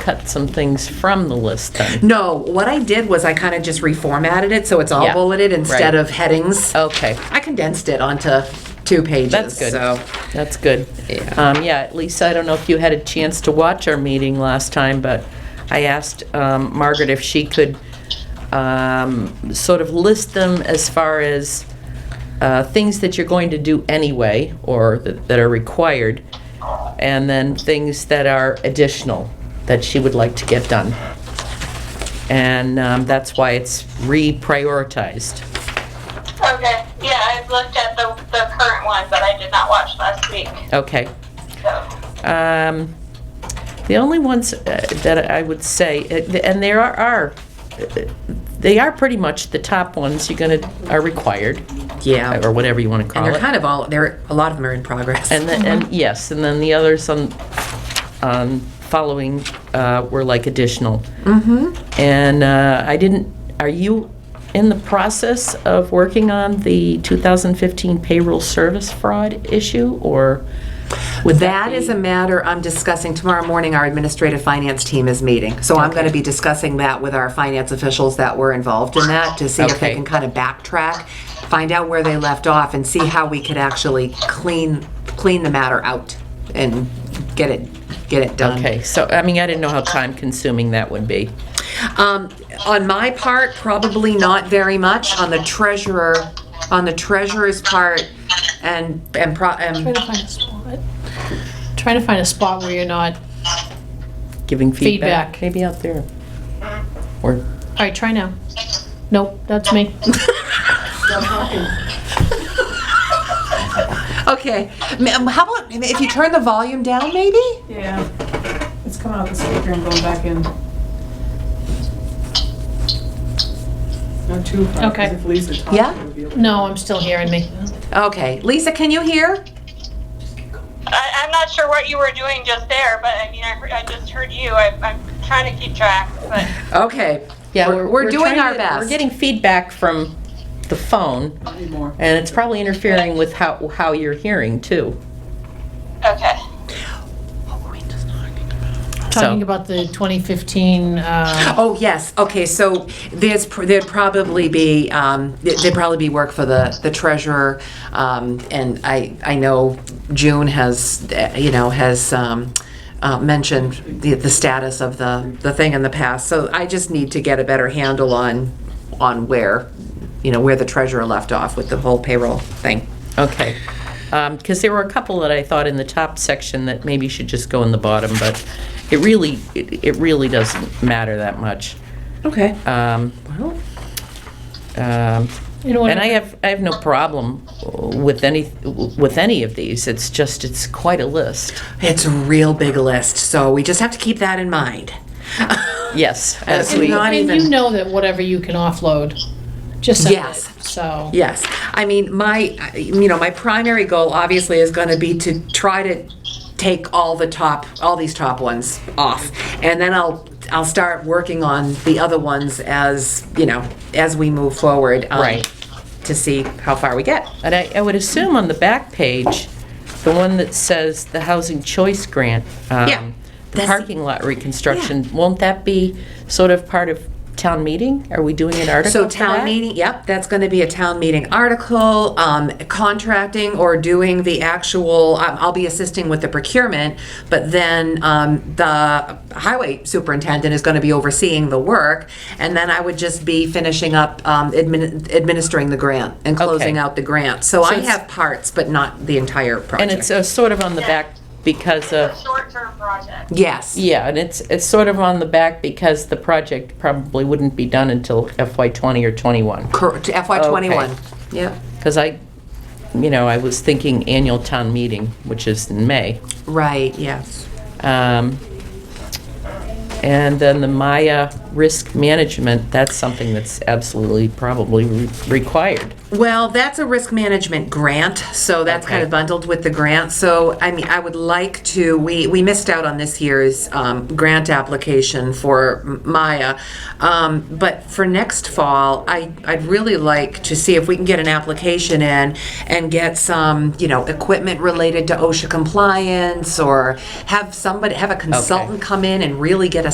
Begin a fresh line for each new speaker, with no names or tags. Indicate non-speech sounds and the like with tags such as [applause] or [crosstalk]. cut some things from the list then?
No, what I did was I kind of just reformatted it, so it's all
Yeah,
bulleted instead
right.
of headings.
Okay,
I condensed it onto two pages,
that's good.
so.
That's good.
Yeah.
Um, Yeah, Lisa, I don't know if you had a chance to watch our meeting last time, but I asked um, Margaret if she could um, sort of list them as far as uh, things that you're going to do anyway, or that that are required, and then things that are additional that she would like to get done. And um, that's why it's reprioritized.
Okay, yeah, I've looked at the, the current one, but I did not watch last week,
Okay.
so.
Um, The only ones uh, that I would say, uh, and there are- are, uh, they are pretty much the top ones you're gonna, are required,
Yeah,
or whatever you wanna
and
call
they're Mm-hmm.
it.
kind of all, there, a lot of them are in progress.
And, the- and, yes, and then the others on, on following uh, were like additional.
Mm-hmm.
And uh, I didn't, are you in the process of working on the 2015 payroll service fraud issue, or would that
That
be?
is a matter I'm discussing tomorrow morning. Our administrative finance team is meeting. So I'm going to be discussing that with our finance officials that were involved in that to see if
Okay.
they can kind of backtrack, find out where they left off and see how we could actually clean, clean the matter out and get it, get it done.
Okay, so, I mean, I didn't know how time-consuming that would be.
Um, on my part, probably not very much. On the treasurer, on the treasurer's part and, and pro,
Try
and, [laughs]
to find a spot. Try to find a spot where you're not, all
Giving feedback?
Feedback.
Maybe out there. Or,
right, try now. Nope, that's me.
okay. Ma'am, How about, if you turn the volume down maybe?
Yeah, it's coming out the speaker and going back in. Not too far, 'cause
Okay.
if Lisa talks,
Yeah?
it would be a-
No, I'm still hearing me.
Okay, Lisa, can you hear?
I, I'm not sure what you were doing just there, but I mean, I, heard- I just heard you, I, I'm trying to keep track, but,
Okay.
yeah,
We're-
we're...
we're doing
trying
our
to-
best.
We're getting feedback from the phone,
Anymore.
and it's probably interfering with how, how you're hearing, too.
okay.
Talking about the 2015, uh,
Oh, yes, okay, so there's, pr- there'd probably be, um, th- there'd probably be work for the, the treasurer. Um, and I, I know June has, uh, you know, has, um, uh, mentioned the, the status of the, the thing in the past. So I just need to get a better handle on, on where, you know, where the treasurer left off with the whole payroll thing.
Okay. Because there were a couple that I thought in the top section that maybe should just go in the bottom, but it really, it it really doesn't matter that much.
Okay.
Um,
Well,
um,
you know what?
And I have, I have no problem with any, with any of these, it's just, it's quite a list.
It's a real big list, so we just have to keep that in mind. [laughs]
Yes, as
It's
we,
not
And
even-
you know that whatever you can offload, just send it,
Yes.
so.
Yes, I mean, my, you know, my primary goal obviously is going to be to try to take all the top, all these top ones off, and then I'll, I'll start working on the other ones as, you know, as we move forward. um,
Right.
To see how far we get.
and I, I would assume on the back page, the one that says the housing choice grant,
Yeah,
um, the
that's-
parking lot reconstruction, won't that be sort of part of town meeting? Are we doing an article
So
for
town
that?
meeting, yep, that's going to be a town meeting article, um, contracting or doing the actual, um, I'll be assisting with the procurement, but then um, the highway superintendent is going to be overseeing the work, and then I would just be finishing up um, admin- administering the grant and closing
Okay.
out the grant. So I
it's-
have parts, but not the entire
And it's
project.
uh, sort of on the back because of,
It's a short-term project.
Yes,
yeah, and it's, it's sort of on the back because the project probably wouldn't be done until FY '20 or '21.
cor- to FY '21.
Okay.
Yep,
Because I, you know, I was thinking annual town meeting, which is in May.
right, yes.
Um, And then the Maya risk management, that's something that's absolutely probably re- required.
Well, that's a risk management grant, so that's kind of
Okay.
bundled with the grant. So, I mean, I would like to, we, we missed out on this year's um, grant application for M- Maya. Um, But for next fall, I, I'd really like to see if we can get an application in and get some, you know, equipment related to OSHA compliance or have somebody, have a consultant come in and really get a